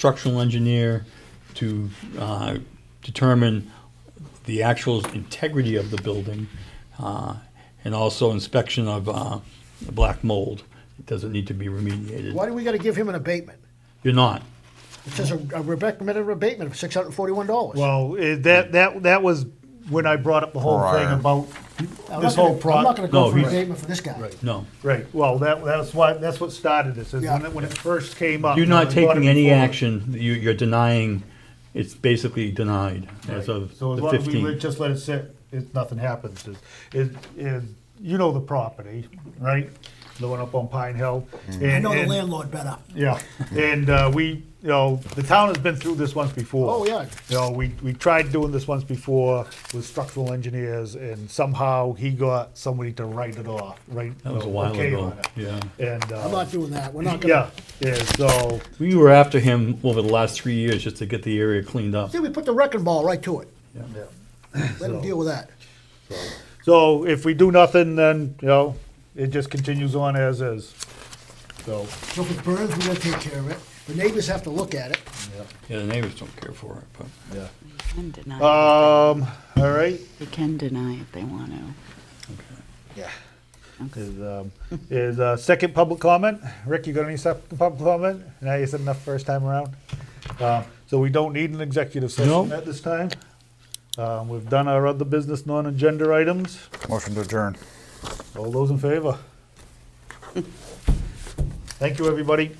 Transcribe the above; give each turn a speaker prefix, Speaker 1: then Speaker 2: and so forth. Speaker 1: structural engineer to uh, determine the actual integrity of the building, uh, and also inspection of uh, black mold. It doesn't need to be remediated.
Speaker 2: Why do we gotta give him an abatement?
Speaker 1: You're not.
Speaker 2: It says a a recommended abatement of six hundred and forty-one dollars.
Speaker 3: Well, eh, that, that, that was when I brought up the whole thing
Speaker 4: Prior.
Speaker 3: about this whole
Speaker 2: I'm not
Speaker 3: pro.
Speaker 2: gonna go
Speaker 1: No,
Speaker 2: for an
Speaker 1: he's-
Speaker 2: abatement for this guy.
Speaker 1: No.
Speaker 3: Right, well, that, that's why, that's what started this, is when
Speaker 2: Yeah.
Speaker 3: it, when it first came up.
Speaker 1: You're
Speaker 3: I
Speaker 1: not
Speaker 3: brought it
Speaker 1: taking any
Speaker 3: before.
Speaker 1: action. You- You're denying, it's basically denied as of
Speaker 3: So as
Speaker 1: the
Speaker 3: long as we let-
Speaker 1: 15th.
Speaker 3: just let it sit, if nothing happens, is, is, is, you know the property, right? The one up on Pine Hill.
Speaker 2: I know the landlord better.
Speaker 3: Yeah, and uh, we, you know, the town has been through this once before.
Speaker 2: Oh, yeah.
Speaker 3: You know, we, we tried doing this once before with structural engineers, and somehow he got somebody to write it off, right?
Speaker 1: That was a while
Speaker 3: okay
Speaker 1: ago,
Speaker 3: on it.
Speaker 1: yeah.
Speaker 3: And,
Speaker 2: I'm
Speaker 3: uh,
Speaker 2: not doing that. We're not gonna,
Speaker 3: yeah, yeah, so,
Speaker 1: We were after him over the last three years just to get the area cleaned up.
Speaker 2: see, we put the wrecking ball right to it.
Speaker 3: yeah.
Speaker 2: Let him
Speaker 3: So-
Speaker 2: deal with that.
Speaker 3: So if we do nothing, then, you know, it just continues on as is, so.
Speaker 2: So if it burns, we're gonna take care of it. The neighbors have to look at it.
Speaker 1: Yeah, the neighbors don't care for it, but.
Speaker 5: Can deny it.
Speaker 3: Um, all right,
Speaker 5: They can deny if they want to.
Speaker 3: Is, um, is uh, second public comment? Rick, you got any second public comment? Now you said enough first time around. Uh, so we don't need an executive session
Speaker 1: No.
Speaker 3: at this time. Uh, we've done our other business non-agenda items.
Speaker 4: Motion to adjourn.
Speaker 3: All those in favor? Thank you, everybody.